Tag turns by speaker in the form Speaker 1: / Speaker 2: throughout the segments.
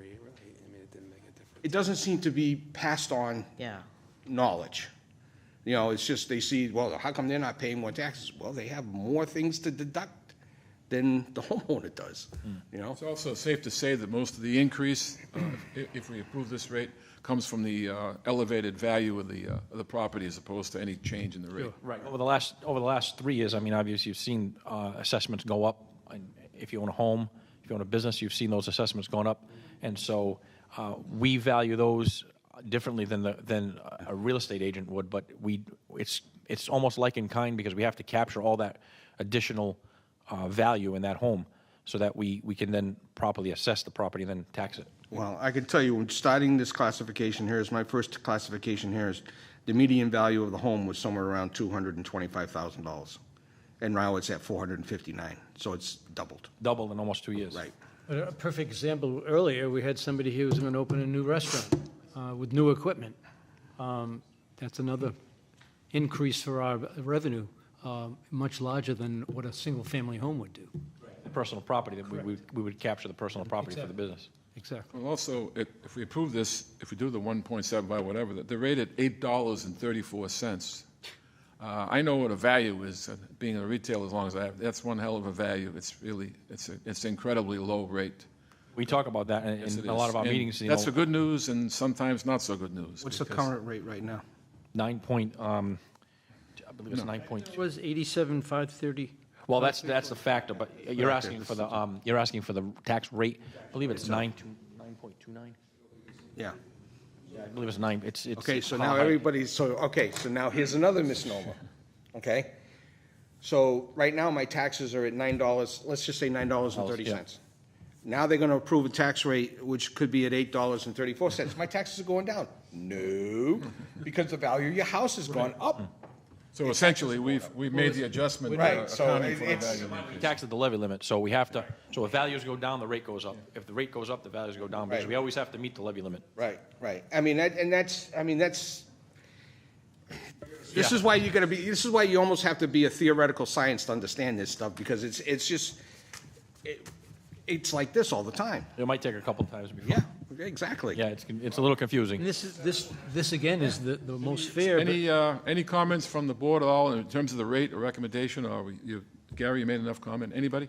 Speaker 1: okay, I mean, it didn't make a difference.
Speaker 2: it doesn't seem to be passed on
Speaker 3: Yeah.
Speaker 2: knowledge. You know, it's just they see, well, how come they're not paying more taxes? Well, they have more things to deduct than the homeowner does, you know?
Speaker 4: It's also safe to say that most of the increase, uh, i- if we approve this rate, comes from the uh, elevated value of the, uh, of the property as opposed to any change in the rate.
Speaker 5: Right, over the last, over the last three years, I mean, obviously, you've seen uh, assessments go up. And If you own a home, if you own a business, you've seen those assessments going up. And so uh, we value those differently than, the than a real estate agent would, but we, it's, it's almost like in kind because we have to capture all that additional uh, value in that home so that we, we can then properly assess the property and then tax it.
Speaker 2: Well, I can tell you, when starting this classification here is, my first classification here is, the median value of the home was somewhere around two hundred and twenty-five thousand dollars. And now it's at four hundred and fifty-nine, so it's doubled,
Speaker 5: Doubled in almost two years.
Speaker 2: right?
Speaker 6: A perfect example, earlier, we had somebody here who's going to open a new restaurant uh, with new equipment. Um, That's another increase for our revenue, uh, much larger than what a single-family home would do.
Speaker 5: The Personal property, that we, we we would capture the personal property for the business.
Speaker 6: Exactly.
Speaker 4: Well, also, if if we approve this, if we do the 1.75, whatever, that they're rated $8.34. Uh, I know what a value is, uh, being a retailer as long as I have, that's one hell of a value. It's really, it's, a- it's incredibly low rate.
Speaker 5: We talk about that in-
Speaker 4: Yes, it
Speaker 5: in a lot
Speaker 4: is.
Speaker 5: of our
Speaker 4: And
Speaker 5: meetings. you
Speaker 4: That's
Speaker 5: know.
Speaker 4: the good news and sometimes not so good news.
Speaker 2: What's the
Speaker 4: because-
Speaker 2: current rate right now?
Speaker 5: nine point, um, I believe it's nine point
Speaker 6: It
Speaker 5: two.
Speaker 6: was 87,530.
Speaker 5: Well, that's, that's the factor, but you're asking for the, um, you're asking for the tax rate. I believe it's nine two, nine point two nine?
Speaker 2: Yeah.
Speaker 5: I believe it's nine, it's, it's.
Speaker 2: Okay,
Speaker 5: it's
Speaker 2: so now
Speaker 5: high.
Speaker 2: everybody's, so, okay, so now here's another misnomer, okay? So right now, my taxes are at nine dollars, let's just say nine dollars and thirty cents. Now they're gonna approve a tax rate which could be at eight dollars and thirty-four cents. My taxes are going down. No, because the value of your house has gone up.
Speaker 4: So essentially, we've, we made the adjustment. uh,
Speaker 2: Right, so
Speaker 4: accounting for the
Speaker 2: it's-
Speaker 4: value
Speaker 5: We
Speaker 4: increase.
Speaker 5: tax at the levy limit, so we have to, so if values go down, the rate goes up. If the rate goes up, the values go down, because
Speaker 2: Right.
Speaker 5: we always have to meet the levy limit.
Speaker 2: Right, right. I mean, that, and that's, I mean, that's, this is why you're gonna be, this is why you almost have to be a theoretical science to understand this stuff, because it's, it's just, it, it's like this all the time.
Speaker 5: It might take a couple times before.
Speaker 2: Yeah, exactly.
Speaker 5: Yeah, it's, con- it's a little confusing.
Speaker 6: And this is, this, this again is the, the most fair, but
Speaker 4: Any, uh, any comments from the board at all in terms of the rate or recommendation, or we- you, Gary, you made enough comment, anybody?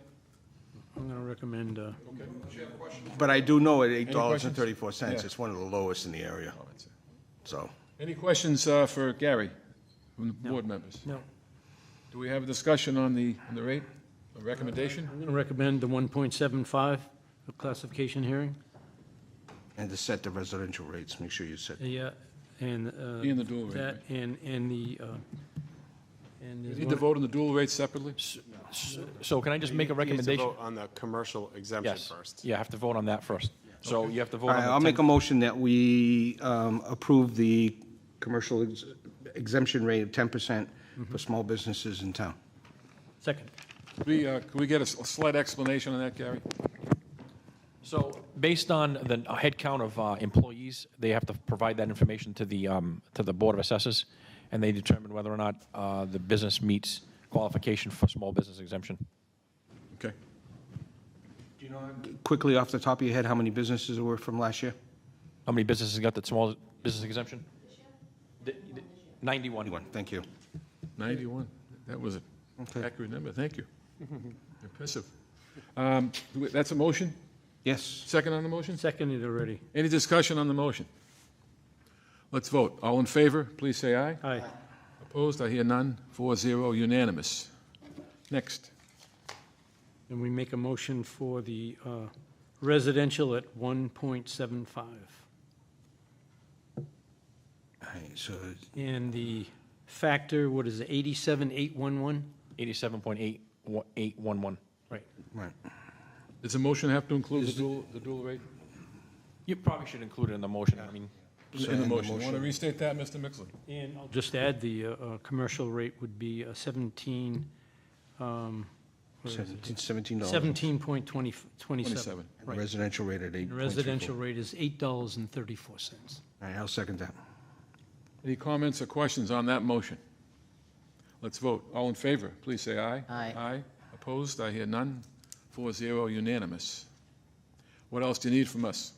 Speaker 6: I'm going to recommend, uh,
Speaker 2: But I do know at eight dollars and
Speaker 4: questions?
Speaker 2: thirty-four cents,
Speaker 4: Yeah.
Speaker 2: it's one of the lowest in the area. So,
Speaker 4: Any questions uh, for Gary, from the board members?
Speaker 6: no,
Speaker 4: Do we have a discussion on the, on the rate, the recommendation?
Speaker 6: I'm going to recommend the 1.75 for classification hearing.
Speaker 2: and to set the residential rates, make sure you set,
Speaker 6: Uh, Yeah, and. uh,
Speaker 4: In the dual rate,
Speaker 6: That, and, and the, uh, and.
Speaker 4: You
Speaker 6: there's
Speaker 4: Need to
Speaker 6: one-
Speaker 4: vote on the dual rate separately?
Speaker 5: So can I just make a
Speaker 1: You need to
Speaker 5: recommendation?
Speaker 1: vote On the commercial exemption
Speaker 5: Yes,
Speaker 1: first.
Speaker 5: yeah, I have to vote on that first. So you have to vote
Speaker 2: All
Speaker 5: on
Speaker 2: right,
Speaker 5: the
Speaker 2: I'll
Speaker 5: 10
Speaker 2: make a motion that we um, approve the commercial ex- exemption rate of ten percent for small businesses in town.
Speaker 6: Second.
Speaker 4: We, uh, can we get a s- a slight explanation on that, Gary?
Speaker 5: So, based on the headcount of uh, employees, they have to provide that information to the, um, to the Board of Assessors, and they determine whether or not uh, the business meets qualification for small business exemption.
Speaker 4: Okay.
Speaker 2: Quickly off the top of your head, how many businesses there were from last year?
Speaker 5: How many businesses got that small business exemption? The- the-
Speaker 2: One,
Speaker 5: Ninety-one.
Speaker 2: thank you.
Speaker 4: 91. That was an
Speaker 2: Okay.
Speaker 4: accurate number, thank you. Impressive. Um, do we- That's a motion?
Speaker 2: Yes,
Speaker 4: Second on the motion?
Speaker 6: Seconded already.
Speaker 4: Any discussion on the motion? Let's vote. All in favor, please say aye.
Speaker 6: Aye.
Speaker 4: Opposed, I hear none. Four zero, unanimous. Next.
Speaker 6: And we make a motion for the uh, residential at 1.75
Speaker 2: all right, so,
Speaker 6: and the factor, what is it, 87,811?
Speaker 5: Eighty-seven point eight, one, eight, one, one.
Speaker 6: Right.
Speaker 2: right.
Speaker 4: Does the motion have to include the dual, the dual rate?
Speaker 5: You probably should include it in the motion, I mean,
Speaker 4: In the motion. Want to restate that, Mr. Mixler?
Speaker 6: And I'll just add, the uh, uh, commercial rate would be uh, um, 17,
Speaker 2: Seventeen, seventeen dollars.
Speaker 6: 17.27.
Speaker 4: 27.
Speaker 2: Residential rate at eight point three
Speaker 6: The
Speaker 2: four.
Speaker 6: Residential rate is $8.34.
Speaker 2: All right, I'll second that.
Speaker 4: Any comments or questions on that motion? Let's vote. All in favor, please say aye.
Speaker 3: Aye.
Speaker 4: Aye. Opposed, I hear none. Four zero, unanimous. What else do you need from us?